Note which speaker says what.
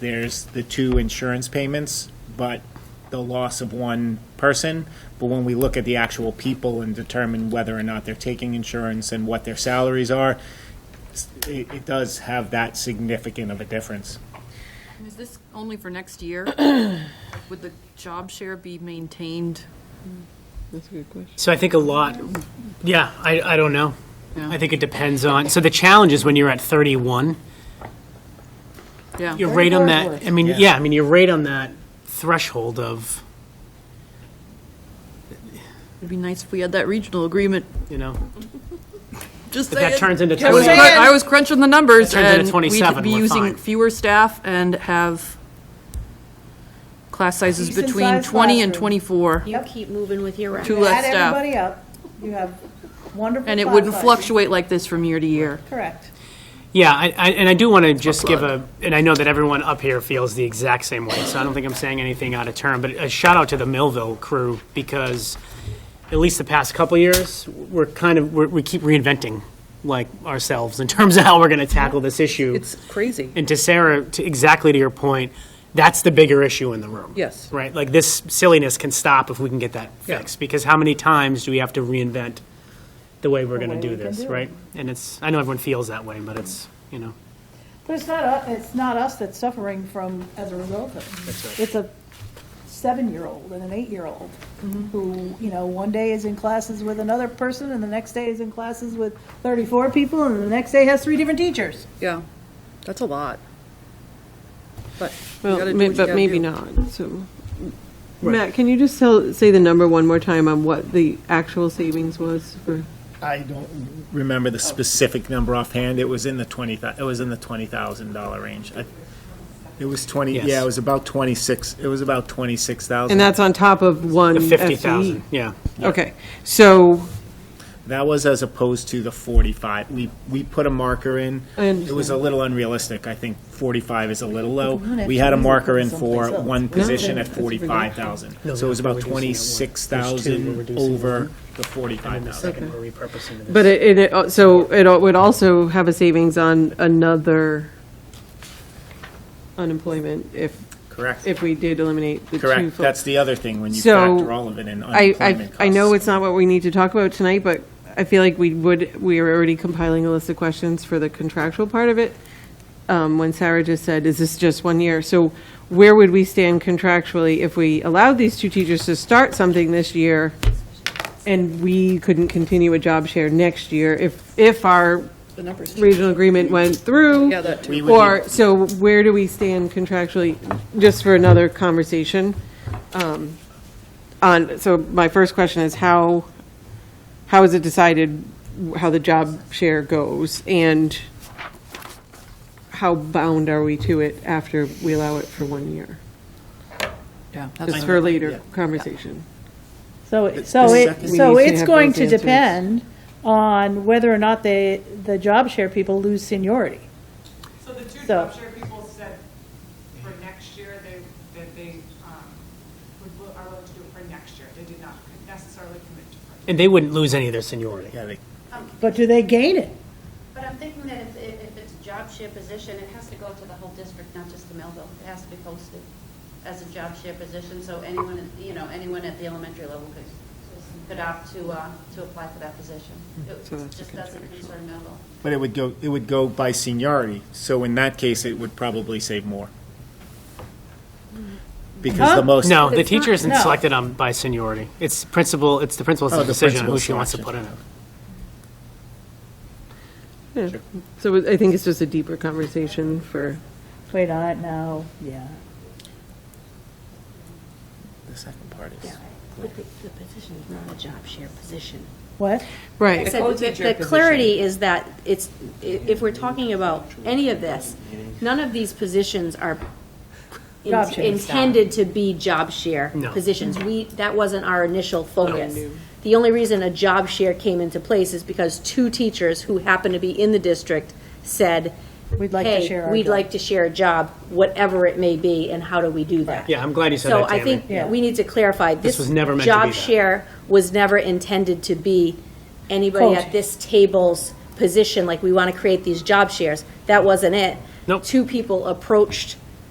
Speaker 1: there's the two insurance payments, but the loss of one person. But when we look at the actual people and determine whether or not they're taking insurance and what their salaries are, s- it, it does have that significant of a difference.
Speaker 2: Is this only for next year? Would the job share be maintained?
Speaker 3: That's a good question.
Speaker 4: So I think a lot, yeah, I, I don't know.
Speaker 2: Yeah.
Speaker 4: I think it depends on, so the challenge is when you're at 31,
Speaker 2: Yeah.
Speaker 4: you're right on that, I mean, yeah, I mean, you're right on that threshold of,
Speaker 2: It'd be nice if we had that regional agreement,
Speaker 4: you know,
Speaker 2: just
Speaker 4: if that
Speaker 2: saying.
Speaker 4: turns into
Speaker 2: I was
Speaker 4: 20.
Speaker 2: crun- I was crunching the numbers
Speaker 4: That turns into
Speaker 2: and
Speaker 4: 27,
Speaker 2: we'd be
Speaker 4: we're
Speaker 2: using
Speaker 4: fine.
Speaker 2: fewer staff and have class sizes
Speaker 5: Decent
Speaker 2: between
Speaker 5: sized
Speaker 2: 20 and
Speaker 5: classroom.
Speaker 2: 24,
Speaker 6: You keep moving with your
Speaker 2: Two
Speaker 6: record.
Speaker 2: less
Speaker 5: Add
Speaker 2: staff.
Speaker 5: everybody up, you have wonderful.
Speaker 2: and it
Speaker 5: class
Speaker 2: wouldn't
Speaker 5: sizes.
Speaker 2: fluctuate like this from year to year.
Speaker 5: Correct.
Speaker 4: Yeah, I, I, and I do want to just give a, and I know that everyone up here feels the exact same way, so I don't think I'm saying anything out of turn, but a shout out to the Millville crew because at least the past couple years, we're kind of, we're, we keep reinventing like ourselves in terms of how we're going to tackle this issue.
Speaker 3: It's crazy.
Speaker 4: And to Sarah, to exactly to your point, that's the bigger issue in the room.
Speaker 3: Yes.
Speaker 4: Right? Like this silliness can stop if we can get that
Speaker 3: Yeah.
Speaker 4: fixed. Because how many times do we have to reinvent the way we're going
Speaker 5: way
Speaker 4: to do
Speaker 5: we can
Speaker 4: this,
Speaker 5: do it.
Speaker 4: right? And it's, I know everyone feels that way, but it's, you know,
Speaker 5: But it's not, u- it's not us that's suffering from, as a result of it. It's a seven-year-old and an eight-year-old
Speaker 2: Mm-hmm.
Speaker 5: who, you know, one day is in classes with another person and the next day is in classes with thirty-four people and the next day has three different teachers.
Speaker 3: Yeah, that's a lot. But you gotta
Speaker 7: Well,
Speaker 3: do
Speaker 7: may-
Speaker 3: what you
Speaker 7: but
Speaker 3: gotta
Speaker 7: maybe
Speaker 3: do.
Speaker 7: not, so. Matt, can you just tell, say the number one more time on what the actual savings was for?
Speaker 1: I don't remember the specific number offhand. It was in the twenty. It was in the twenty thousand dollar range. I, it was twenty.
Speaker 4: Yes.
Speaker 1: Yeah, it was about twenty six. It was about twenty six thousand.
Speaker 7: And that's on top of one
Speaker 4: the
Speaker 7: FTE? E.
Speaker 4: 50,000. Yeah.
Speaker 7: Okay, so,
Speaker 1: That was as opposed to the 45. We, we put a marker in.
Speaker 7: I
Speaker 1: It was a little unrealistic. I think 45 is a little low.
Speaker 5: wanna
Speaker 1: We had a
Speaker 5: actually
Speaker 1: marker in
Speaker 5: put someplace
Speaker 1: for
Speaker 5: else.
Speaker 1: one position at
Speaker 7: that's a
Speaker 1: 45,000.
Speaker 4: No,
Speaker 1: So it was
Speaker 4: we're
Speaker 1: about
Speaker 4: reducing that one. There's two, we're
Speaker 1: 26,000
Speaker 4: reducing
Speaker 1: over the
Speaker 4: And the
Speaker 1: 45,000.
Speaker 4: second, we're repurposing this.
Speaker 7: but it- it, it, al- so it al- would also have a savings on another unemployment if,
Speaker 1: Correct.
Speaker 7: if we did eliminate the two.
Speaker 1: Correct.
Speaker 7: full-
Speaker 1: That's the other thing when you
Speaker 7: So,
Speaker 1: factor all of it in
Speaker 7: I,
Speaker 1: unemployment
Speaker 7: I,
Speaker 1: costs.
Speaker 7: I know it's not what we need to talk about tonight, but I feel like we would, we are already compiling a list of questions for the contractual part of it. Um, when Sarah just said, is this just one year? So where would we stand contractually if we allowed these two teachers to start something this year? And we couldn't continue a job share next year if, if our
Speaker 3: The numbers.
Speaker 7: regional agreement went through?
Speaker 3: Yeah, that
Speaker 1: We
Speaker 3: too.
Speaker 1: would be-
Speaker 7: Or, so where do we stand contractually, just for another conversation? um, On, so my first question is how, how is it decided how the job share goes? And how bound are we to it after we allow it for one year?
Speaker 3: Yeah, that's
Speaker 7: Just
Speaker 3: fine.
Speaker 7: for later conversation.
Speaker 5: So, it- so it,
Speaker 1: second-
Speaker 5: so
Speaker 7: We need to
Speaker 5: it's
Speaker 7: have
Speaker 5: going
Speaker 7: those
Speaker 5: to
Speaker 7: answers.
Speaker 5: depend on whether or not the, the job share people lose seniority.
Speaker 8: So the two
Speaker 5: So-
Speaker 8: job share people said for next year, they, that they um, would, will- are willing to do it for next year. They did not necessarily commit to it.
Speaker 4: And they wouldn't lose any of their seniority.
Speaker 1: Yeah, they-
Speaker 5: But do they gain it?
Speaker 6: But I'm thinking that if, if if it's a job share position, it has to go to the whole district, not just the Melville. It has to be posted as a job share position, so anyone, you know, anyone at the elementary level could, could opt to, uh, to apply for that position. It
Speaker 7: Mm-hmm. So that's a
Speaker 6: just doesn't
Speaker 7: contractual.
Speaker 6: concern Melville.
Speaker 1: But it would go, it would go by seniority. So in that case, it would probably save more. Because
Speaker 5: Huh?
Speaker 1: the most.
Speaker 4: No, the
Speaker 5: It's not-
Speaker 4: teacher isn't
Speaker 5: no.
Speaker 4: selected on, by seniority. It's principal, it's the principal's
Speaker 1: Oh, the
Speaker 4: decision on who
Speaker 1: principal's
Speaker 4: she wants to put
Speaker 1: selection.
Speaker 4: in it.
Speaker 7: Yeah. So I think it's just a deeper conversation for,
Speaker 5: Wait on it now, yeah.
Speaker 1: The second part is.
Speaker 6: The position is not a job share position.
Speaker 5: What?
Speaker 7: right.
Speaker 6: So The the clarity is that it's, i- if we're talking about any of this, none of these positions are in-
Speaker 5: Job share.
Speaker 6: intended to be job share
Speaker 4: No.
Speaker 6: positions. We, that wasn't our initial focus. The only reason a job share came into place is because two teachers who happen to be in the district said,
Speaker 5: We'd like to share
Speaker 6: Hey,
Speaker 5: our
Speaker 6: we'd
Speaker 5: job."
Speaker 6: like to share a job, whatever it may be, and how do we do that?
Speaker 4: Yeah, I'm glad you said
Speaker 6: So
Speaker 4: that,
Speaker 6: I
Speaker 4: Tammy.
Speaker 5: Yeah.
Speaker 6: think we need to clarify, this
Speaker 4: was never meant to be
Speaker 6: job
Speaker 4: that.
Speaker 6: share was never intended to be anybody
Speaker 5: Coaching.
Speaker 6: at this table's position, like we want to create these job shares. That wasn't it.
Speaker 4: Nope.
Speaker 6: Two people approached